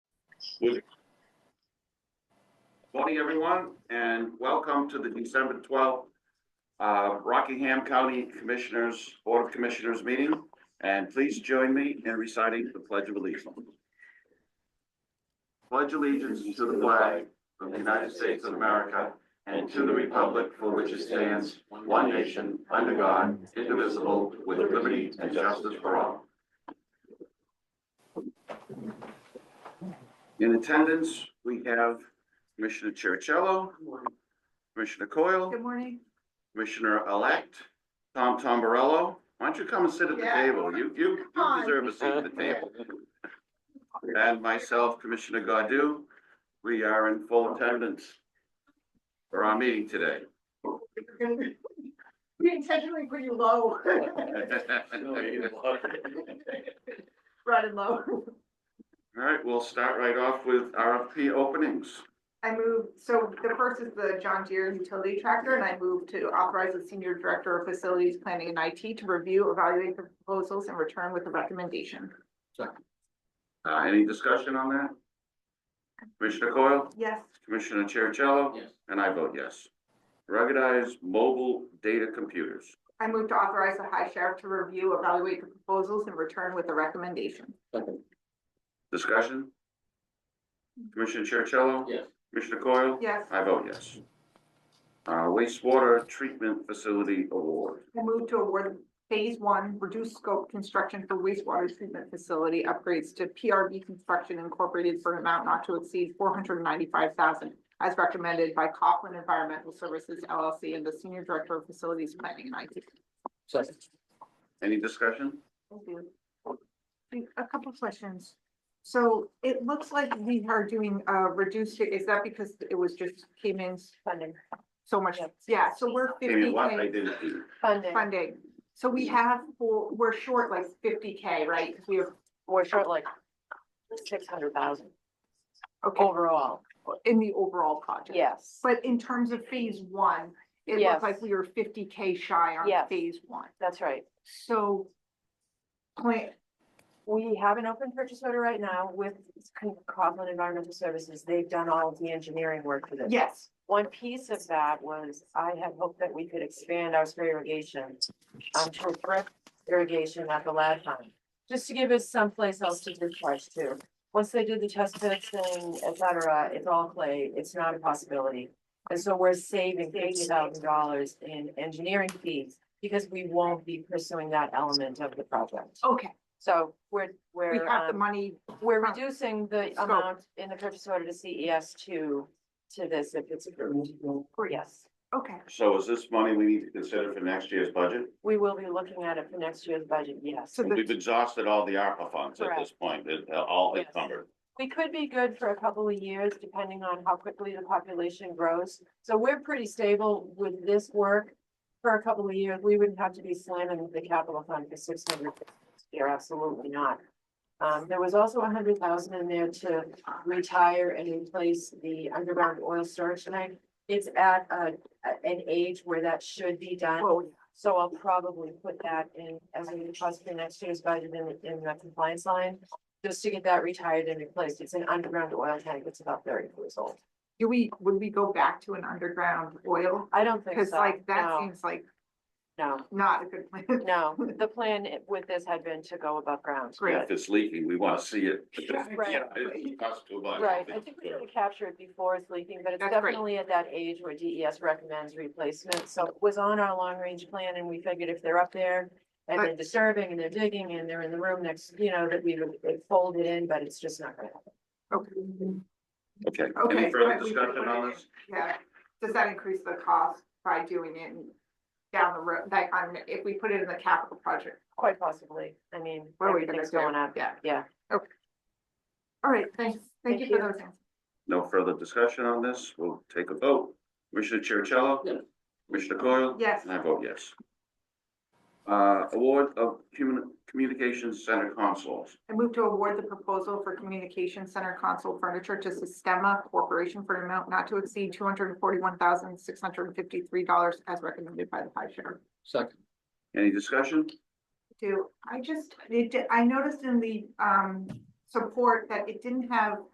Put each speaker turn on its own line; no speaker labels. With-
Morning, everyone, and welcome to the December twelfth uh, Rockingham County Commissioners, Board of Commissioners meeting. And please join me in reciting the Pledge of Allegiance. Pledge allegiance to the flag of the United States of America and to the republic for which it stands, one nation, under God, indivisible, with liberty and justice for all. In attendance, we have Commissioner Cherichello, Commissioner Coyle,
Good morning.
Commissioner-elect Tom Tombarello. Why don't you come and sit at the
Yeah.
table? You, you you deserve a seat at the table. And myself, Commissioner Godu, we are in full attendance for our meeting today.
We intentionally put you low, right and low.
All right, we'll start right off with RFP openings.
I move, so the first is the John Deere utility tractor, and I move to authorize the senior director of facilities planning and IT to review, evaluate the proposals and return with a recommendation.
Uh, any discussion on that? Commissioner Coyle,
Yes,
Commissioner Cherichello?
Yes.
And I vote yes. Ruggedized mobile data computers.
I move to authorize the high sheriff to review, evaluate the proposals and return with a recommendation.
Discussion? Commissioner Chercello?
Yes.
Commissioner Coyle?
Yes,
I vote yes. Uh, wastewater treatment facility award.
I move to award phase one reduced scope construction for wastewater treatment facility upgrades to PRB Construction Incorporated for an amount not to exceed four hundred ninety-five thousand as recommended by Coughlin Environmental Services LLC and the Senior Director of Facilities Planning and IT.
Second.
Any discussion?
Thank you. A couple of questions. So it looks like we are doing a reduced, is that because it was just came in
Funding,
so much? Yeah, so we're fifty.
Amy, what I didn't do.
funding,
funding. So we
Mm.
have, four- we're short like fifty K, right? Because we have,
we're short like six hundred thousand
okay,
overall,
in the overall project.
yes.
But in terms of phase one, it
Yes.
looked like we were fifty K shy on
Yes.
phase one.
That's right.
So plan,
We have an open purchase order right now with Coughlin Environmental Services. They've done all of the engineering work for this.
yes,
One piece of that was I had hoped that we could expand our spray irrigation um, to a drip irrigation at the lab time. Just to give us someplace else to discharge to. Once they did the test testing, et cetera, it's all clay. It's not a possibility. And so we're saving fifty thousand dollars in engineering fees because we won't be pursuing that element of the project.
okay,
So we're,
we
we're,
have the
um,
money,
we're
Huh.
reducing the
Scope.
amount in the purchase order to CES to, to this if it's approved. Yes,
okay,
So is this money we need to consider for next year's budget?
we will be looking at it for next year's budget, yes.
so the,
We've exhausted all the ARPA funds at this point, It- uh, all
Yes.
encumbered.
We could be good for a couple of years depending on how quickly the population grows. So we're pretty stable with this work. For a couple of years, we wouldn't have to be slamming the capital fund for six hundred year, absolutely not. Um, there was also a hundred thousand in there to retire and replace the underground oil storage tank. It's at a, a- an age where that should be done.
well,
So I'll probably put that in as a request for next year's budget in, the- in the compliance line, just to get that retired and replaced. It's an underground oil tank. It's about thirty years old.
do we, would we go back to an underground oil?
I don't think
Because
so.
like, that
No,
seems like
no,
not a good plan.
no. The plan i- with this had been to go above ground.
Great.
If it's leaking, we want to see it.
Right.
Yeah, It costs too much.
Right. I think we're gonna capture it before it's leaking, but it's
That's great.
definitely at that age where DES recommends replacement. So it was on our long range plan and we figured if they're up there and they're disturbing and they're digging and they're in the room next, you know, that we would it fold it in, but it's just not gonna happen.
Okay.
Okay,
Okay,
any further
but we can
discussion
put
on
it in.
this?
Yeah, does that increase the cost by doing it down the road, like, on, if we put it in the capital project?
Quite possibly. I mean,
What are we gonna
everything's going
do?
up.
Yeah.
Yeah.
All right, thanks, thank you
Thank
for
you.
those things.
No further discussion on this. We'll take a vote. Commissioner Chercello?
Yes.
Commissioner Coyle?
Yes,
And I vote yes. Uh, award of Human Communications Center consoles.
I move to award the proposal for communication center console furniture to Sistema Corporation for an amount not to exceed two hundred and forty-one thousand, six hundred and fifty-three dollars as recommended by the high sheriff.
Second.
Any discussion?
Do, I just, it, I noticed in the, um, support that it didn't have